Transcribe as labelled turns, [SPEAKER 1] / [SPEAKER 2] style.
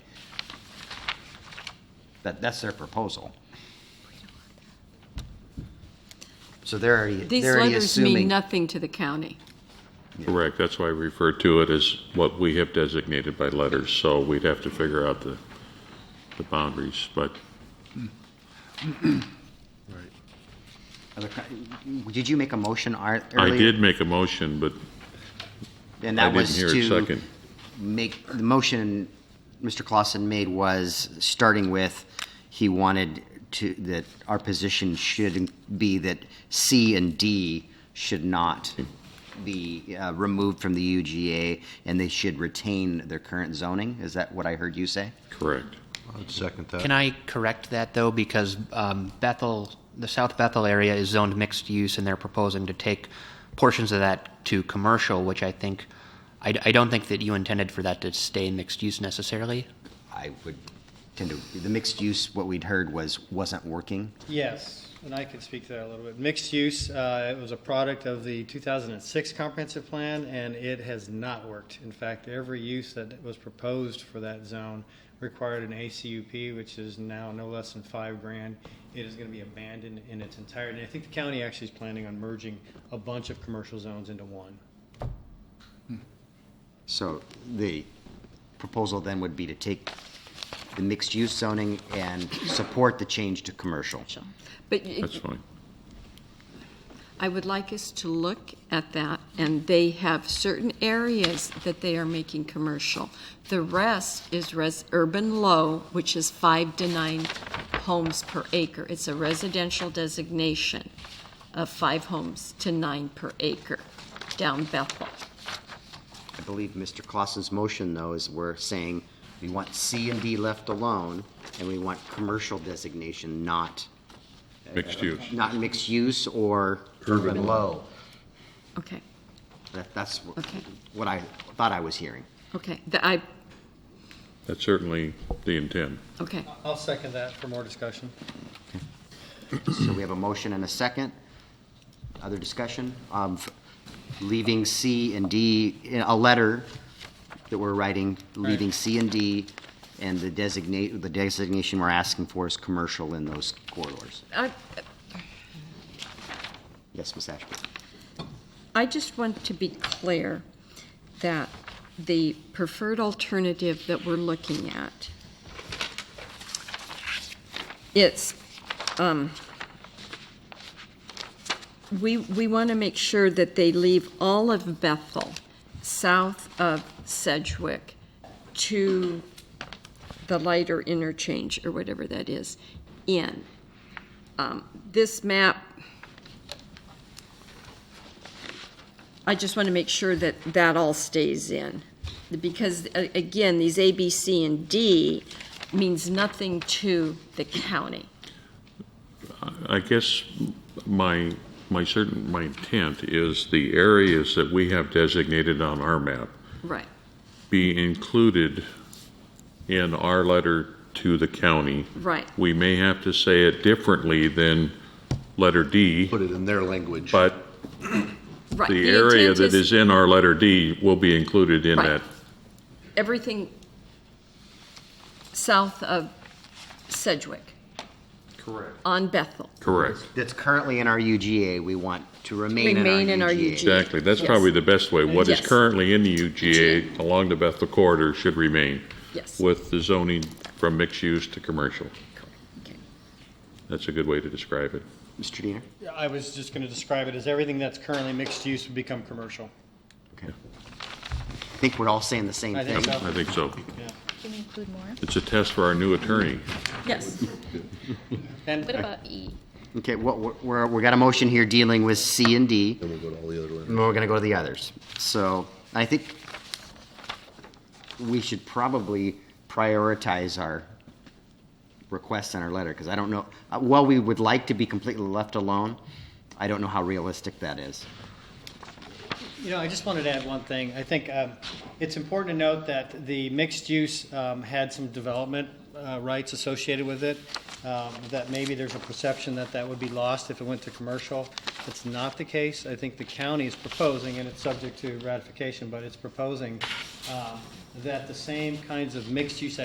[SPEAKER 1] That, that's their proposal. So they're already,
[SPEAKER 2] These
[SPEAKER 1] they're already
[SPEAKER 2] letters mean
[SPEAKER 1] assuming,
[SPEAKER 2] nothing to the county.
[SPEAKER 3] Correct, that's why I refer to it as what we have designated by letters, so we'd have to figure out the, the boundaries, but
[SPEAKER 1] other co- did you make a motion ar-
[SPEAKER 3] I
[SPEAKER 1] earlier?
[SPEAKER 3] did make a motion, but
[SPEAKER 1] And that
[SPEAKER 3] I didn't
[SPEAKER 1] was
[SPEAKER 3] hear a
[SPEAKER 1] to
[SPEAKER 3] second.
[SPEAKER 1] make, the motion Mr. Clausen made was, starting with, he wanted to, that our position should be that C and D should not be uh, removed from the UGA, and they should retain their current zoning? Is that what I heard you say?
[SPEAKER 3] Correct.
[SPEAKER 4] I'd second that.
[SPEAKER 5] Can I correct that though? Because um, Bethel, the South Bethel area is zoned mixed use and they're proposing to take portions of that to commercial, which I think, I, I don't think that you intended for that to stay mixed use necessarily.
[SPEAKER 1] I would tend to, the mixed use, what we'd heard was, wasn't working.
[SPEAKER 6] Yes, and I can speak to that a little bit. Mixed use, uh, it was a product of the 2006 comprehensive plan, and it has not worked. In fact, every use that was proposed for that zone required an ACUP, which is now no less than five grand. It is going to be abandoned in its entirety. And I think the county actually is planning on merging a bunch of commercial zones into one.
[SPEAKER 1] So the proposal then would be to take the mixed-use zoning and support the change to commercial.
[SPEAKER 2] But y-
[SPEAKER 3] That's fine.
[SPEAKER 2] I would like us to look at that, and they have certain areas that they are making commercial. The rest is res, urban low, which is five to nine homes per acre. It's a residential designation of five homes to nine per acre down Bethel.
[SPEAKER 1] I believe Mr. Clausen's motion, though, is we're saying we want C and D left alone, and we want commercial designation, not,
[SPEAKER 3] Mixed use.
[SPEAKER 1] not mixed use or urban low.
[SPEAKER 2] Okay,
[SPEAKER 1] That, that's wh-
[SPEAKER 2] Okay.
[SPEAKER 1] what I thought I was hearing.
[SPEAKER 2] okay, The- I,
[SPEAKER 3] That's certainly the intent.
[SPEAKER 2] okay.
[SPEAKER 6] I'll second that for more discussion.
[SPEAKER 1] So we have a motion and a second. Other discussion of leaving C and D, in a letter that we're writing, leaving C and D, and the designate, the designation we're asking for is commercial in those corridors.
[SPEAKER 2] I,
[SPEAKER 1] Yes, Ms. Ashby?
[SPEAKER 2] I just want to be clear that the preferred alternative that we're looking at, it's, um, we, we want to make sure that they leave all of Bethel, south of Sedgwick, to the lighter interchange, or whatever that is, in. Um, This map I just want to make sure that that all stays in. Because, a- again, these A, B, C, and D means nothing to the county.
[SPEAKER 3] I guess my, my certain, my intent is the areas that we have designated on our map
[SPEAKER 2] Right.
[SPEAKER 3] be included in our letter to the county.
[SPEAKER 2] Right.
[SPEAKER 3] We may have to say it differently than letter D,
[SPEAKER 4] Put it in their language.
[SPEAKER 3] but
[SPEAKER 2] Right.
[SPEAKER 3] the area
[SPEAKER 2] Uh, intent
[SPEAKER 3] that is in our letter D will be included in
[SPEAKER 2] Right.
[SPEAKER 3] that
[SPEAKER 2] Everything south of Sedgwick. Correct. On Bethel.
[SPEAKER 3] Correct.
[SPEAKER 1] That's currently in our UGA, we want to remain in our UGA.
[SPEAKER 2] Remain in our UGA.
[SPEAKER 3] Exactly. That's
[SPEAKER 2] Yes.
[SPEAKER 3] probably the best way. What is
[SPEAKER 2] Yes.
[SPEAKER 3] currently in the UGA along the Bethel corridor should remain
[SPEAKER 2] Yes.
[SPEAKER 3] with the zoning from mixed use to commercial.
[SPEAKER 2] Okay.
[SPEAKER 3] That's a good way to describe it.
[SPEAKER 1] Mr. Diener?
[SPEAKER 6] I was just going to describe it as everything that's currently mixed use would become commercial.
[SPEAKER 1] Okay. I think we're all saying the same
[SPEAKER 6] I
[SPEAKER 1] thing.
[SPEAKER 6] think so.
[SPEAKER 3] I think so.
[SPEAKER 7] Can we include more?
[SPEAKER 3] It's a test for our new attorney.
[SPEAKER 2] Yes.
[SPEAKER 6] And
[SPEAKER 7] What about E?
[SPEAKER 1] Okay, what, we're, we're, we got a motion here dealing with C and D.
[SPEAKER 4] Then we'll go to all the other ones.
[SPEAKER 1] and we're going to go to the others. So I think we should probably prioritize our requests in our letter, because I don't know, uh, while we would like to be completely left alone, I don't know how realistic that is.
[SPEAKER 6] You know, I just wanted to add one thing. I think um, it's important to note that the mixed use um, had some development uh, rights associated with it, um, that maybe there's a perception that that would be lost if it went to commercial. It's not the case. I think the county is proposing, and it's subject to ratification, but it's proposing um, that the same kinds of mixed use